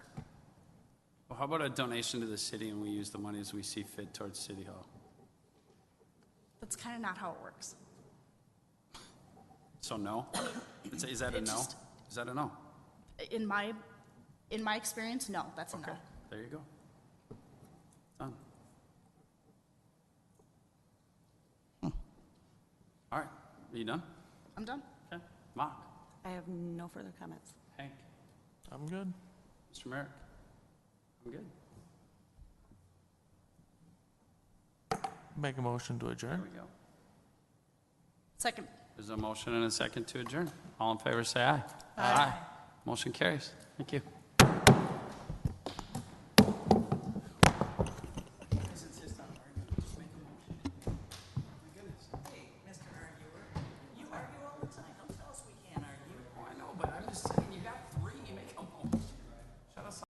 how about a donation to the city and we use the money as we see fit towards City Hall? That's kind of not how it works. So no? Is is that a It no? just- Is that a no? In my, in my experience, no, that's a Okay, no. there you go. Done. Hmm. All right, are you done? I'm done. Okay. Mark, I have no further comments. Hank, I'm good. Mr. Merrick? I'm good. Make a motion to There adjourn. we go. Second. There's a motion and a second to adjourn. All in favor, say aye. Aye. Motion carries. Thank you.